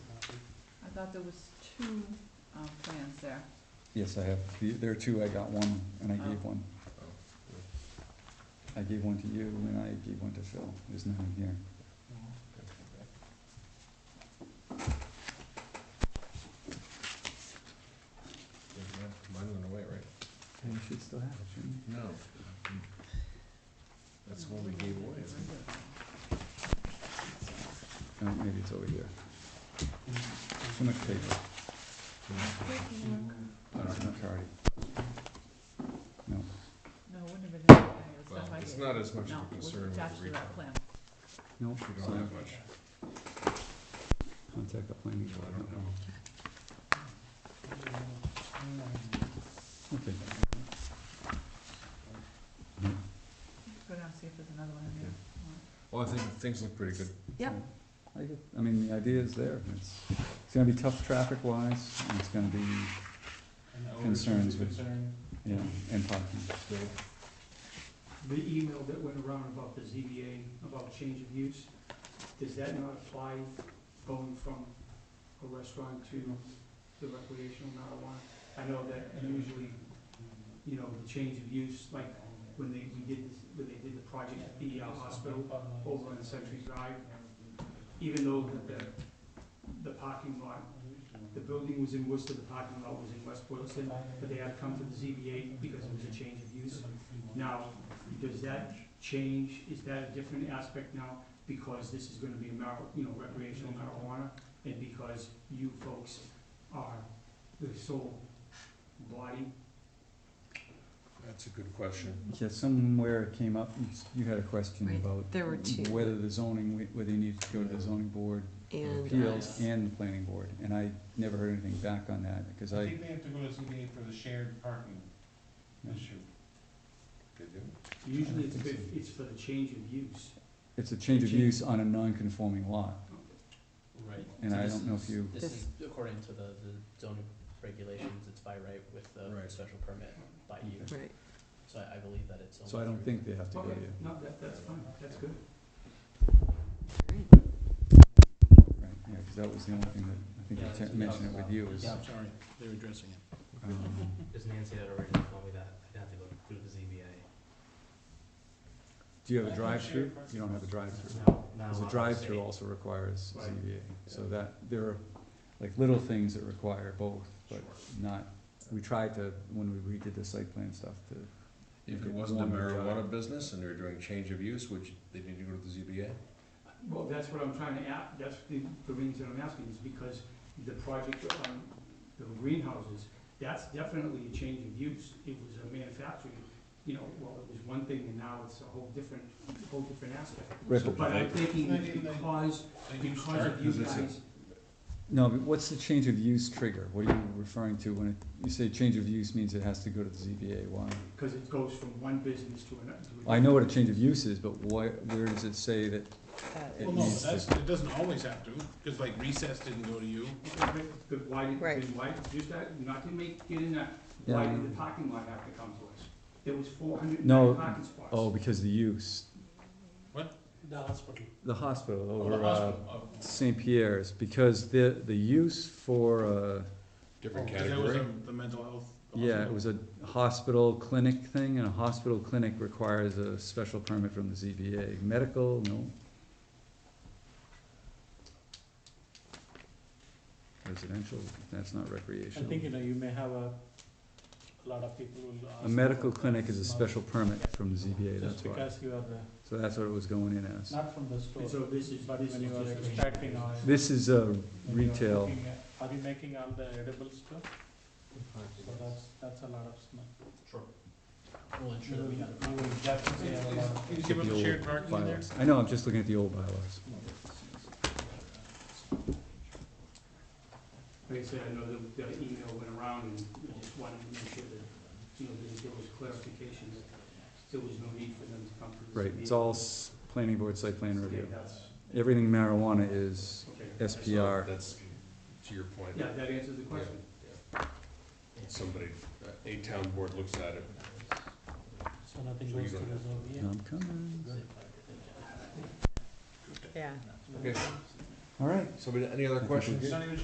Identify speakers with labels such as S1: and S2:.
S1: thought there was two, um, plans there.
S2: Yes, I have, The- there are two, I got one, and I gave one. I gave one to you, and I gave one to Phil, there's none here.
S3: Mine went away, right?
S2: You should still have it, shouldn't you?
S3: No. That's the one we gave away, isn't it?
S2: Oh, maybe it's over here. Too much paper,
S1: Paperwork.
S2: that's Oh, not Cardi.
S1: No,
S2: No,
S1: it wouldn't have been that, it was
S3: Well,
S1: stuff I
S3: it's
S1: gave.
S3: not as much of
S1: No,
S3: a
S1: it was
S3: concern with
S1: attached
S3: the
S1: to that
S3: recall.
S1: plan.
S2: no,
S3: We
S2: so
S3: don't have much,
S2: contact the planning
S3: so
S2: board.
S3: I don't know.
S2: Okay.
S1: Go down and see if there's another one in there.
S3: Well, I think things look pretty good.
S1: Yep.
S2: I, get- I mean, the idea is there, it's, it's gonna be tough traffic wise, and it's gonna be, Concerns with- you know, and parking.
S3: Yeah.
S4: The email that went around about the ZBA, about change of use, does that not apply going from a restaurant to the recreational marijuana? I know that usually, you know, the change of use, like when they, we did, when they did the project at the uh, hospital over on Century Drive, even though that the, the parking lot, the building was in Worcester, the parking lot was in West Boylston, but they had come to the ZBA because it was a change of use. Now, does that change, is that a different aspect now because this is gonna be mar, you know, recreational marijuana? And because you folks are the sole body?
S3: That's a good question.
S2: Yeah, somewhere it came up, you s- you had a question
S5: Right,
S2: about
S5: there were two.
S2: whether the zoning, whe- whether you need to go to the zoning board,
S5: And
S2: appeals,
S5: uh,
S2: and the planning board, and I never heard anything back on that, because I,
S6: they have to go to ZBA for the shared parking
S2: Yeah.
S3: They do?
S4: Usually it's,
S2: I think
S4: for-
S2: so.
S4: it's for the change of use.
S2: it's a change of
S4: Change.
S2: use on a non-conforming lot,
S6: Right.
S2: and I don't know if you,
S5: This is
S6: according to the, the zoning regulations, it's by right with
S3: Right.
S6: special permit by
S2: you. Okay.
S5: right,
S6: so I, I believe that it's
S2: so I don't think they have to go to
S4: Okay,
S2: you.
S4: no, that, that's fine, that's good.
S2: Right, yeah, because that was the only thing that, I think I te- mentioned it with you, is,
S6: Yeah,
S2: um,
S6: I'm sorry, they're addressing it.
S7: Because Nancy had already told me that, I'd have to go through the ZBA.
S2: do you have
S6: I
S2: a
S6: have
S2: drive-through?
S6: shared parking.
S2: You don't have a drive-through.
S7: Now, now
S2: Because a
S7: I'll
S2: drive-through
S7: say-
S2: also requires
S4: Right.
S2: ZBA, so that, there are, like, little things that require both, but not, we tried to, when we redid the site plan stuff, to
S3: If
S2: make
S3: it wasn't a
S2: one or the other.
S3: marijuana business and they were doing change of use, which they need to go to the ZBA?
S4: Well, that's what I'm trying to ask, that's the, the reason I'm asking is because the project on the greenhouses, that's definitely a change of use. It was a manufacturing, you know, well, it was one thing and now it's a whole different, whole different aspect.
S2: Right, but-
S4: But I'm thinking
S6: They didn't- they-
S4: because, because of you
S3: because it's a-
S4: guys,
S2: No, but what's the change of use trigger? What are you referring to when it, you say change of use means it has to go to the ZBA, why?
S4: because it goes from one business to another. to
S2: I know what a change of use is, but why, where does it say that
S5: that-
S2: it
S6: Well, no,
S2: needs
S6: that's,
S2: to?
S6: it doesn't always have to, cause like recess didn't go to you.
S4: another. But why, did-
S5: Right.
S4: then why, just that, not to make, get in that, why
S2: Yeah.
S4: did the parking lot have to come to us? There was four hundred and
S2: No,
S4: nine parking spots.
S2: Oh, because the use,
S6: No, that's what.
S2: the hospital over, uh, St. Pierre's, because the, the use for, uh,
S3: Different
S6: Cause that was
S3: category?
S6: um, the mental health.
S2: Yeah, it was a hospital clinic thing, and a hospital clinic requires a special permit from the ZBA. Medical, no. Residential, that's not recreational.
S6: know, you may have a, a lot of people who.
S2: A medical clinic is a special permit from the ZBA, that's why.
S6: you are
S2: So that's what it was going in as.
S6: not from the store.
S4: And so this is,
S6: But
S4: this
S6: when you are
S4: is just.
S6: extracting oil-
S2: This is a retail,
S6: Are we making all the edibles too? So that's, that's a lot of smoke.
S7: Sure. We'll ensure that we have.
S6: Can you
S2: give us the shared
S6: parking
S2: bylaws. I know, I'm just looking at the old bylaws.
S4: Like I said, I know that the email went around and I just wanted to make sure that, you know, that there was clarification, that there was no need for them to come to this.
S2: Right, it's all s- planning board site plan review.
S4: Yeah, that's-
S2: Everything marijuana is
S4: okay.
S2: SPR.
S3: That's, to your point.
S4: Yeah, that answers the question.
S3: Somebody, a town board looks at it.
S6: So nothing
S3: So you
S6: goes to
S3: don't
S6: the ZBA?
S3: have-
S2: I'm coming.
S5: yeah.
S3: Okay,
S2: All right.
S3: somebody, any other
S2: think
S3: questions?
S2: we-